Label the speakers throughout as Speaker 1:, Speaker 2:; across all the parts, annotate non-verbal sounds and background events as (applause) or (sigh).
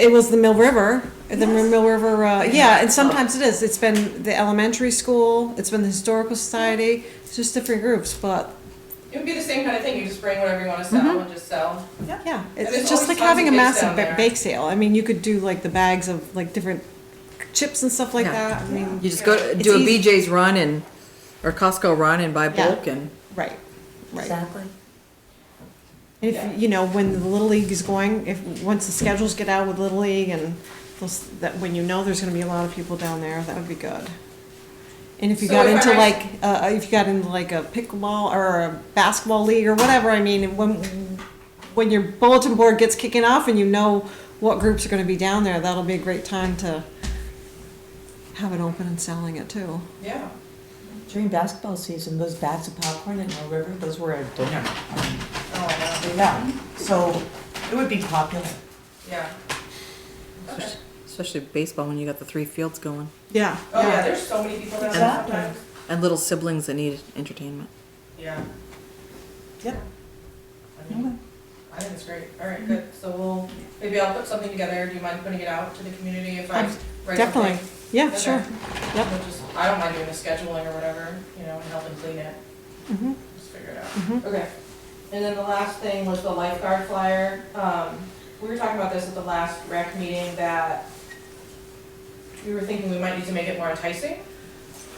Speaker 1: It was the Mill River, the Mill River, uh, yeah, and sometimes it is. It's been the elementary school, it's been the historical society, it's just different groups, but
Speaker 2: It would be the same kind of thing, you just bring whatever you wanna
Speaker 1: Mm-hmm.
Speaker 2: sell and just sell.
Speaker 1: yeah, it's
Speaker 2: there's
Speaker 1: it's just
Speaker 2: always
Speaker 1: like
Speaker 2: tons
Speaker 1: having a
Speaker 2: of kids
Speaker 1: massive
Speaker 2: down
Speaker 1: ba-
Speaker 2: there.
Speaker 1: bake sale. I mean, you could do like the bags of like different chips and stuff like
Speaker 3: Yeah.
Speaker 1: that. I mean,
Speaker 3: You just go to-
Speaker 1: It's
Speaker 3: do a
Speaker 1: easy.
Speaker 3: BJ's run and, or Costco run and buy
Speaker 1: Yeah.
Speaker 3: bulk and.
Speaker 1: right, right.
Speaker 3: Exactly.
Speaker 1: If,
Speaker 2: Yeah.
Speaker 1: you know, when the Little League is going, if, once the schedules get out with Little League and those, that, when you know there's gonna be a lot of people down there, that would be good. And if you
Speaker 2: So
Speaker 1: got
Speaker 2: if I
Speaker 1: into
Speaker 2: write-
Speaker 1: like, uh, if you got into like a pickleball or a basketball league or whatever, I mean, when, when your bulletin board gets kicking off and you know what groups are gonna be down there, that'll be a great time to have it open and selling it too.
Speaker 2: Yeah.
Speaker 4: During basketball season, those bags of popcorn at Mill River, those were a dinner. Um,
Speaker 2: Oh, I know.
Speaker 4: Yeah, so it would be popular.
Speaker 2: Yeah. Okay.
Speaker 3: Especially baseball when you got the three fields going
Speaker 1: Yeah.
Speaker 2: Oh, yeah, there's so many people down there
Speaker 4: Exactly.
Speaker 2: sometimes.
Speaker 3: and little siblings that need entertainment.
Speaker 2: Yeah.
Speaker 1: Yep.
Speaker 2: I mean, I think it's great, all right, good, so we'll, maybe I'll put something together, do you mind putting it out to the community if I
Speaker 1: Um,
Speaker 2: write something?
Speaker 1: Definitely, yeah,
Speaker 2: Okay.
Speaker 1: sure, yep.
Speaker 2: We'll just, I don't mind doing the scheduling or whatever, you know, and helping clean it,
Speaker 1: Mhm.
Speaker 2: just figure it out.
Speaker 1: Mhm.
Speaker 2: Okay, and then the last thing was the lifeguard flyer. Um, we were talking about this at the last rec meeting that we were thinking we might need to make it more enticing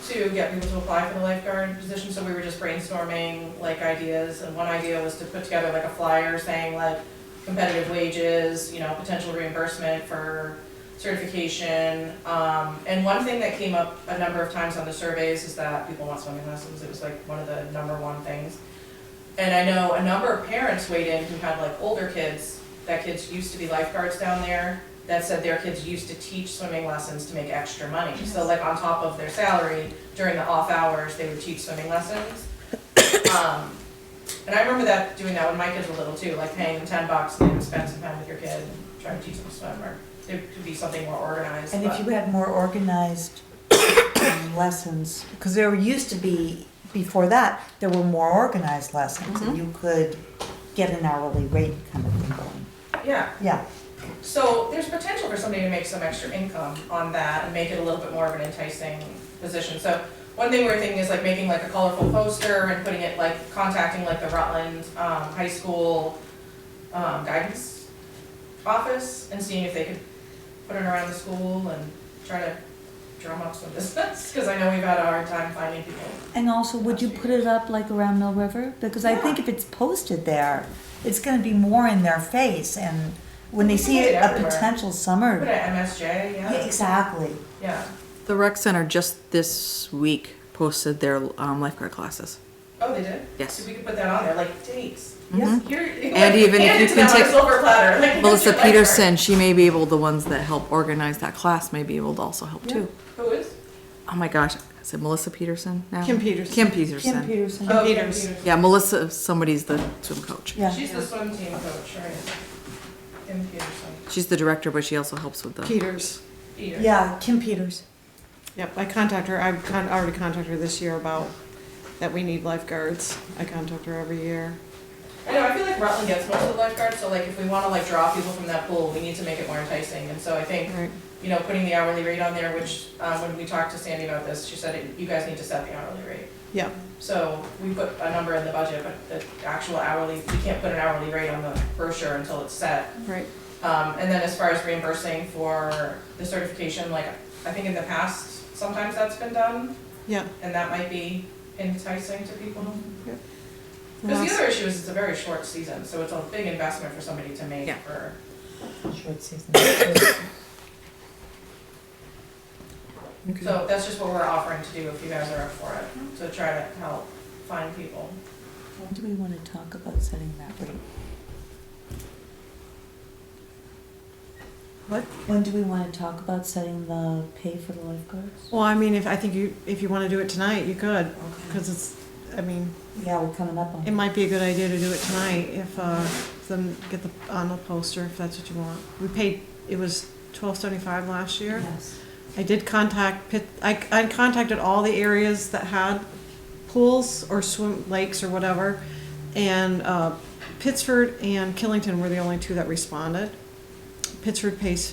Speaker 2: to get people to apply for the lifeguard position, so we were just brainstorming like ideas, and one idea was to put together like a flyer saying like competitive wages, you know, potential reimbursement for certification. Um, and one thing that came up a number of times on the surveys is that people want swimming lessons, it was like one of the number one things. And I know a number of parents weighed in who had like older kids, that kids used to be lifeguards down there, that said their kids used to teach swimming lessons to make extra money. So like on top of their salary, during the off hours, they would teach swimming lessons. Um, And I remember that, doing that when my kids were little too, like paying them ten bucks and they would spend some time with your kid and try to teach them to swim or there could be something more organized,
Speaker 4: And if
Speaker 2: but,
Speaker 4: you had more organized um, lessons, because there used to be, before that, there were more organized lessons.
Speaker 2: Mm-hmm.
Speaker 4: And you could get an hourly rate kind of thing going.
Speaker 2: yeah.
Speaker 4: Yeah,
Speaker 2: So there's potential for somebody to make some extra income on that and make it a little bit more of an enticing position. So one thing we're thinking is like making like a colorful poster and putting it like contacting like the Rutland um high school um guidance office and seeing if they could put it around the school and try to drum up some (laughs) business, cause I know we've had a hard time finding people.
Speaker 4: and also, would you put it up like around Mill River? Because I think if it's posted there, it's gonna be more in their face and when they
Speaker 2: You can
Speaker 4: see
Speaker 2: put it
Speaker 4: a
Speaker 2: everywhere.
Speaker 4: potential
Speaker 2: Put it
Speaker 4: summer.
Speaker 2: at MSJ,
Speaker 4: Yeah,
Speaker 2: yeah,
Speaker 4: exactly.
Speaker 2: yeah.
Speaker 3: The rec center just this week posted their um, lifeguard classes.
Speaker 2: Oh, they did?
Speaker 3: Yes.
Speaker 2: So we could put that on there, like dates.
Speaker 4: Yeah.
Speaker 2: Here, like,
Speaker 3: Mm-hmm. And even if
Speaker 2: hand
Speaker 3: you
Speaker 2: it
Speaker 3: can
Speaker 2: to them on a
Speaker 3: take-
Speaker 2: silver platter, like, here's your
Speaker 3: Melissa
Speaker 2: life card.
Speaker 3: Peterson, she may be able, the ones that help organize that class may be able to also help too.
Speaker 2: Who is?
Speaker 3: Oh my gosh, is it Melissa Peterson now?
Speaker 1: Kim Peterson.
Speaker 3: Um, Kim
Speaker 4: Kim
Speaker 3: Peterson.
Speaker 4: Peterson.
Speaker 2: Oh,
Speaker 1: Peters.
Speaker 2: Kim Peters.
Speaker 3: Yeah, Melissa, somebody's the swim coach.
Speaker 4: Yeah.
Speaker 2: She's the swim team coach, right? Kim Peterson.
Speaker 3: She's the director, but she also helps with the.
Speaker 1: Peters.
Speaker 2: Peter.
Speaker 4: Yeah, Kim Peters.
Speaker 1: Yep, I contacted her, I've con- I already contacted her this year about that we need lifeguards. I contact her every year.
Speaker 2: I know, I feel like Rutland gets most of the lifeguards, so like if we wanna like draw people from that pool, we need to make it more enticing. And so I think,
Speaker 1: Right,
Speaker 2: you know, putting the hourly rate on there, which, um, when we talked to Sandy about this, she said, it- you guys need to set the hourly rate.
Speaker 1: yeah,
Speaker 2: So we put a number in the budget, but the actual hourly, we can't put an hourly rate on the brochure until it's set.
Speaker 1: right.
Speaker 2: Um, and then as far as reimbursing for the certification, like, I think in the past, sometimes that's been done,
Speaker 1: Yeah.
Speaker 2: and that might be enticing to people.
Speaker 1: And
Speaker 2: Because the
Speaker 1: that's-
Speaker 2: other issue is it's a very short season, so it's a big investment for somebody to make
Speaker 3: Yeah.
Speaker 2: for,
Speaker 4: Short season. (coughs)
Speaker 2: so that's just what we're offering to do if you guys are up for it, to try to help find people.
Speaker 4: When do we want to talk about setting that rate? What, when do we want to talk about setting the pay for the lifeguards?
Speaker 1: Well, I mean, if, I think you, if you wanna do it tonight, you could, cause it's, I mean,
Speaker 4: Yeah, we're coming up on
Speaker 1: it might be a good idea to do it tonight if, uh, them, get the, on the poster, if that's what you want. We paid, it was twelve seventy-five last year.
Speaker 4: Yes.
Speaker 1: I did contact Pitt, I, I contacted all the areas that had pools or swim, lakes or whatever. And, uh, Pittsford and Killington were the only two that responded. Pittsford pays